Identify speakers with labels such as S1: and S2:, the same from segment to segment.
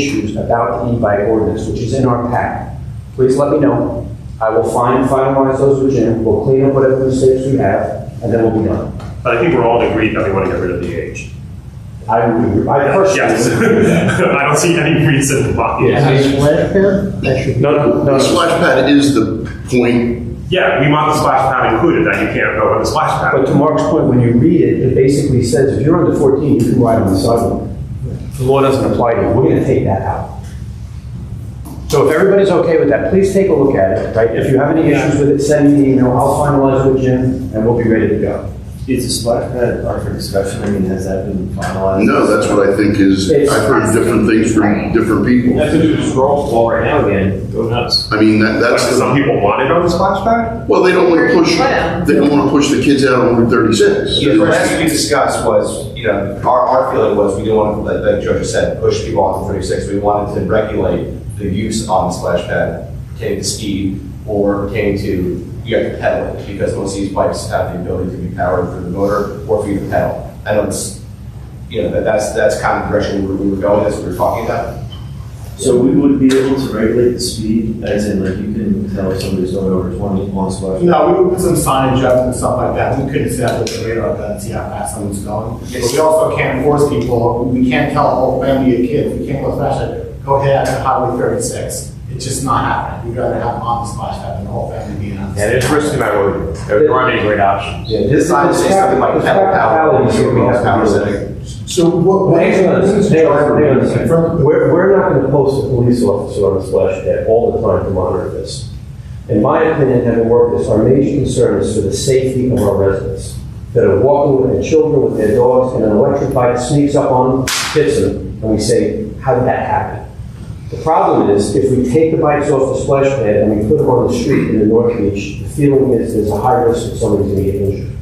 S1: issues about the e-bike ordinance, which is in our pack, please let me know. I will find, finalize those with Jim, we'll clean up whatever mistakes we have, and then we'll be done.
S2: But I think we're all in agreement that we want to get rid of the age.
S1: I, would- I
S2: Yes.
S1: personally.
S2: I don't see any reason why.
S1: Yeah.
S3: Is it splash pad? That should be.
S1: No, no,
S4: The splash pad is the point.
S2: Yeah, we want the splash pad included, that you can't go on the splash pad.
S1: But to Mark's point, when you read it, it basically says if you're under 14, you can ride on the sidewalk. The law doesn't apply to you. We're going to take that out. So if everybody's okay with that, please take a look at it, right? If you have any issues with it, send me an email. I'll finalize with Jim and we'll be ready to go.
S5: Is the splash pad up for discussion? I mean, has that been finalized?
S4: No, that's what I think is, I've heard different things from different people.
S5: to do the scroll wall right now again. Go nuts.
S4: I mean,
S2: Like,
S4: that, that's, the-
S2: some people want it on the splash pad?
S4: well, they don't want to push, they don't want to push the kids out on Route 36.
S6: Yeah, the last we discussed was, you know, our, our feeling was we didn't want to, like, like George said, push people onto thirty-six. We wanted to regulate the use on the splash pad pertaining to speed or pertaining to, you have to pedal it because most of these bikes have the ability to be powered through the motor or for you to pedal. I know it's, you know, that, that's, that's kind of the direction we were- we were going, that's what we were talking about.
S5: So we would be able to regulate the speed, as in like you can tell if somebody's going over twenty on splash. pad.
S7: No, we would put some signage up and stuff like that, we couldn't set up with the radar gun and see how fast someone's going. But we also can't force people, we can't tell a whole family of kids, we can't go splash pad, go ahead on Highway thirty-six. It's just not happening, we'd rather have them on the splash pad than the whole family being on.
S5: Yeah, there's risk in that road. There aren't any great options.
S6: Yeah, this side is something like pedal power, we have power setting.
S3: So what? what-
S1: Hang on,
S3: this is-
S1: hang on, hang on a second.
S3: From-
S1: We're, we're not gonna post a police officer on a splash pad all the time to monitor this. In my opinion, having worked this, our major concern is for the safety of our residents that are walking with their children, with their dogs, and an electric bike sneaks up on them, hits them, and we say, how did that happen? The problem is, if we take the bikes off the splash pad and we put them on the street in the North Beach, the feeling is there's a high risk that somebody's gonna get injured,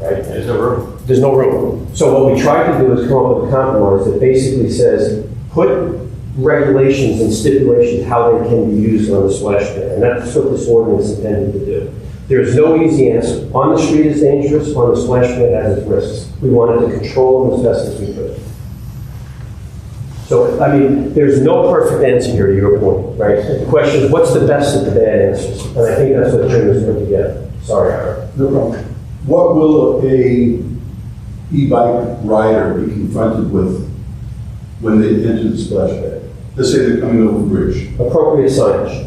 S1: right?
S5: There's no room.
S1: There's no room. So what we tried to do is come up with a compromise that basically says, put regulations and stipulations how they can be used on the splash pad. And that's what this ordinance intended to do. There is no easy answer. On the street is dangerous, on the splash pad has its risks. We wanted to control them as best as we could. So, I mean, there's no perfect answer here to your point, right? The question is, what's the best of the bad answers? And I think that's what Jim has put together. Sorry, Ira.
S8: No problem. What will a e-bike rider be confronted with when they enter the splash pad? Let's say they're coming over the bridge.
S1: Appropriate signage.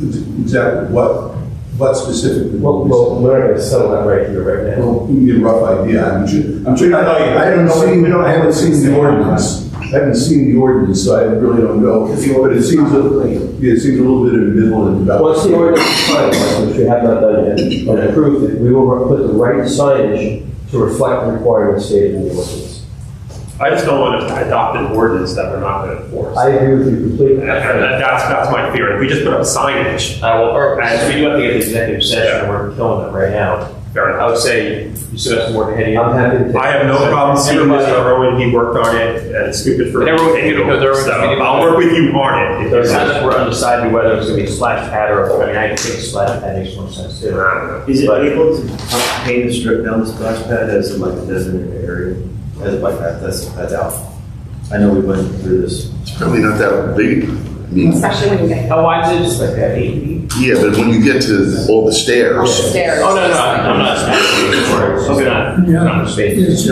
S8: Exactly what, what specifically?
S1: Well,
S8: will be-
S1: well, we're not going to settle that right here, right now.
S8: Well, you get a rough idea. I'm sure, I'm sure,
S7: don't know yet.
S8: I haven't seen, I haven't seen the ordinance. I haven't seen the ordinance, so I really don't know. But it seems, a- yeah, it seems a little bit in the middle and about.
S1: Once the ordinance is finalized, which we have not done yet, and approved, it, we will put the right signage to reflect the requirements stated in the ordinance.
S2: I just don't want to adopt an ordinance that we're not going to enforce.
S1: I agree with you completely.
S2: And that- that's, that's my fear. If we just put up signage,
S5: I will, or, as we do have to get the executive session, we're killing them right now.
S2: fair
S5: I
S2: enough.
S5: would say you still have some work ahead of you.
S1: I'm happy to.
S2: I have no problem seeing
S5: Everybody-
S2: Mr. Rowan, he worked on it, and it's stupid for. him to
S5: Everyone-
S2: take it
S5: you know,
S2: over.
S5: there was-
S2: So I'll work with you on it. If
S5: There's
S2: there's-
S5: times we're undecided whether it's gonna be a splash pad or, I mean, I think a splash pad makes more sense
S2: I
S5: too.
S2: don't know.
S9: Is it
S5: But-
S9: able to paint and strip down the splash pad as like a designated area, as a bike path, that's, that's out? I know we went through this.
S4: It's probably not that big. I mean,
S10: Especially when you get
S5: How wide is it? Just like that, eight feet?
S4: yeah, but when you get to all the stairs,
S10: upstairs.
S5: Oh, no, no, I'm I'm not. Okay, not, not space.
S8: It's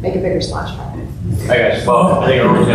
S10: Make a bigger splash pad.
S5: I guess, well, I think everyone's